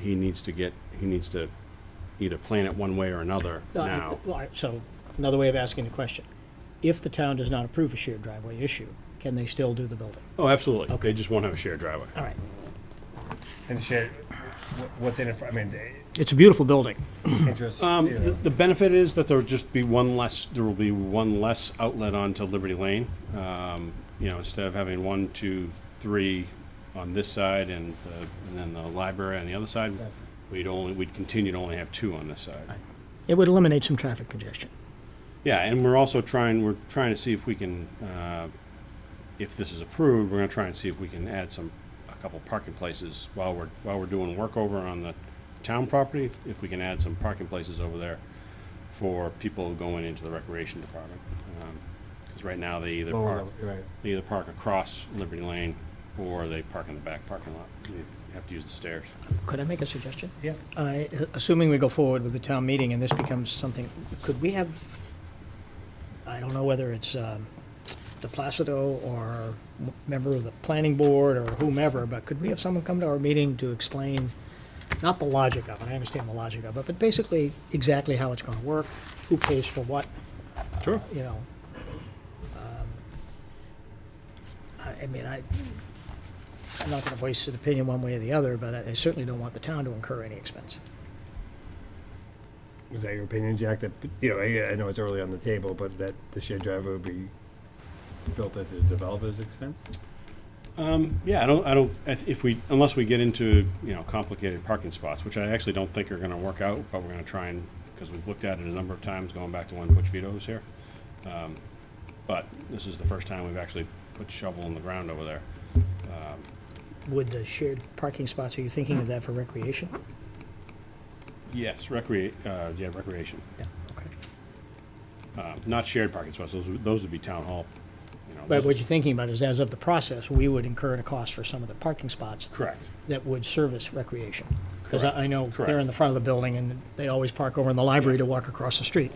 he needs to get, he needs to either plan it one way or another No, I- now. well, I- So, another way of asking the question, if the town does not approve a shared driveway issue, can they still do the building? Oh, absolutely. They just won't have a shared driveway. All right, And share wh- what's in it for, I mean, the it's a beautiful building. interest, Um, you the, know, the benefit is that there'll just be one less, there will be one less outlet onto Liberty Lane. Um, you know, instead of having one, two, three on this side and, the, and then the library on the other side, we'd only, we'd continue to only have two on this side. It would eliminate some traffic congestion. Yeah, and we're also trying, we're trying to see if we can, uh, if this is approved, we're gonna try and see if we can add some, a couple parking places while we're, while we're doing work over on the town property, if we can add some parking places over there for people going into the recreation department. Because right now, they either lower park, level, right. they either park across Liberty Lane, or they park in the back parking lot. You have to use the stairs. Could I make a suggestion? Yeah. I, assuming we go forward with the town meeting and this becomes something, could we have, I don't know whether it's um, De Placido or m- member of the planning board or whomever, but could we have someone come to our meeting to explain, not the logic of it, I understand the logic of it, but basically exactly how it's going to work, who pays for what, Sure. you know? um, I, I mean, I, I'm not gonna voice an opinion one way or the other, but I I certainly don't want the town to incur any expense. Was that your opinion, Jack, that, you know, I, I know it's early on the table, but that the shared driveway would be built at the developer's expense? Um, yeah, I don't, I don't, if if we, unless we get into, you know, complicated parking spots, which I actually don't think are gonna work out, but we're gonna try and, because we've looked at it a number of times, going back to when Butch Vito was here. Um, But this is the first time we've actually put shovel in the ground over there. Would the shared parking spots, are you thinking of that for recreation? Yes, recreate, uh, yeah, recreation, Yeah, okay. uh, not shared parking spots, those, would- those would be town hall, you know. But those- what you're thinking about is as of the process, we would incur a cost for some of the parking spots Correct, that would service recreation. Because Correct. I I know they're in Correct. the front of the building and they always park over in the library to walk across the street.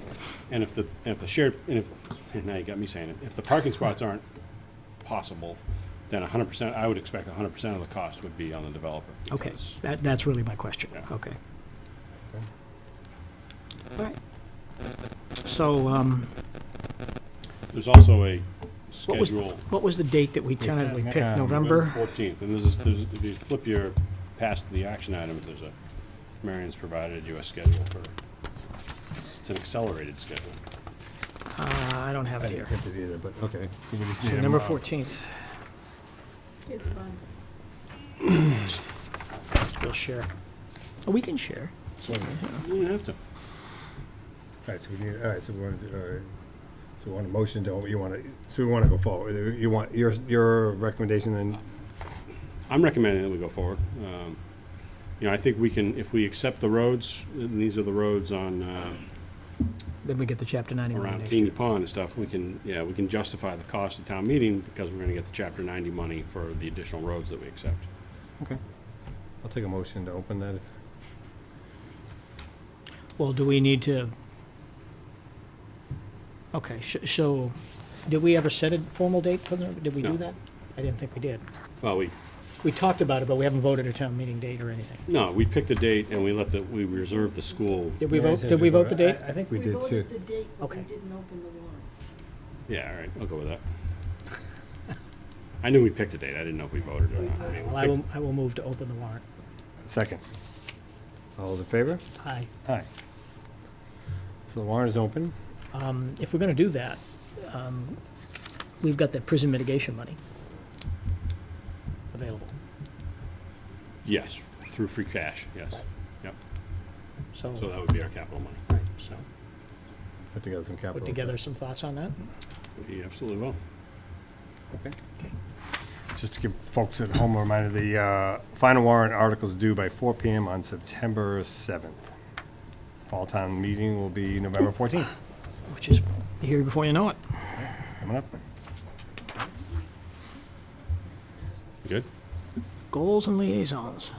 and if the, and if the shared, and if, now you got me saying it, if the parking spots aren't possible, then hundred percent, I would expect hundred percent of the cost would be on the developer. Okay, because- that, that's really my question. Yeah. Okay. All right. So, um, There's also a what was, schedule, what was the date that we tentatively Yeah, picked? um, Uh, November November? fourteenth, and this is, there's, if you flip your, past the action items, there's a, Marion's provided you a schedule for, it's an accelerated schedule. Uh, I don't have I it didn't here. get it either, but, okay, so we just need. a November mo- 14th, It's fun. we'll share. Oh, We can share. Wait a minute. All You don't have to. right, so we need, all right, so we want to, all right, so we want a motion, don't, we? you want to, so we want to go forward, you want, your, your recommendation then, I'm recommending that we go forward. Um, You know, I think we can, if we accept the roads, and these are the roads on, uh, Then we get the chapter 91 around Mm-hmm. next Peony year. Pond and stuff, we can, yeah, we can justify the cost of town meeting because we're gonna get the chapter ninety money for the additional roads that we accept. okay. I'll take a motion to open that if. Well, do we need to? Okay, sh- so, did we ever set a formal date for the, did we No. do that? I didn't think we did. Well, we, We talked about it, but we haven't voted a town meeting date or anything. no, we picked a date and we let the, we reserved the school Did we Yeah, it vote, says did we vote the I- date? I think we did too. voted the date, but we Okay. didn't open the warrant. Yeah, all right, I'll go with that. I knew we picked a date, I didn't know if we voted or not. I mean, we Well, I will, picked- I will move to open the warrant. Second. All those in favor? Aye. Aye. So the warrant is open. Um, If we're going to do that, um, we've got that prison mitigation money available. Yes, through free cash, yes, yep, So so that would be our capital money. Right, so Put together some capital. put together some thoughts on that. We absolutely will. Okay. Okay. Just to give folks at home a reminder, the uh, final warrant articles due by 4 PM on September 7th. Fall town meeting will be November 14th, Which is here before you know it. coming up. Good? Goals and liaisons.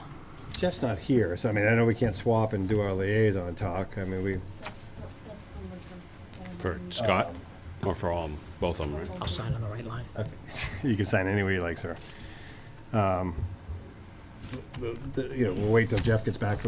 Jeff's not here, so I mean, I know we can't swap and do our liaison talk. I mean, we, That's, that's the liquor. For Scott, or for all, of 'em? both of them, right? I'll sign on the right line. you can sign any way you like, sir. Um, the- the- you know, we'll wait till Jeff gets back for the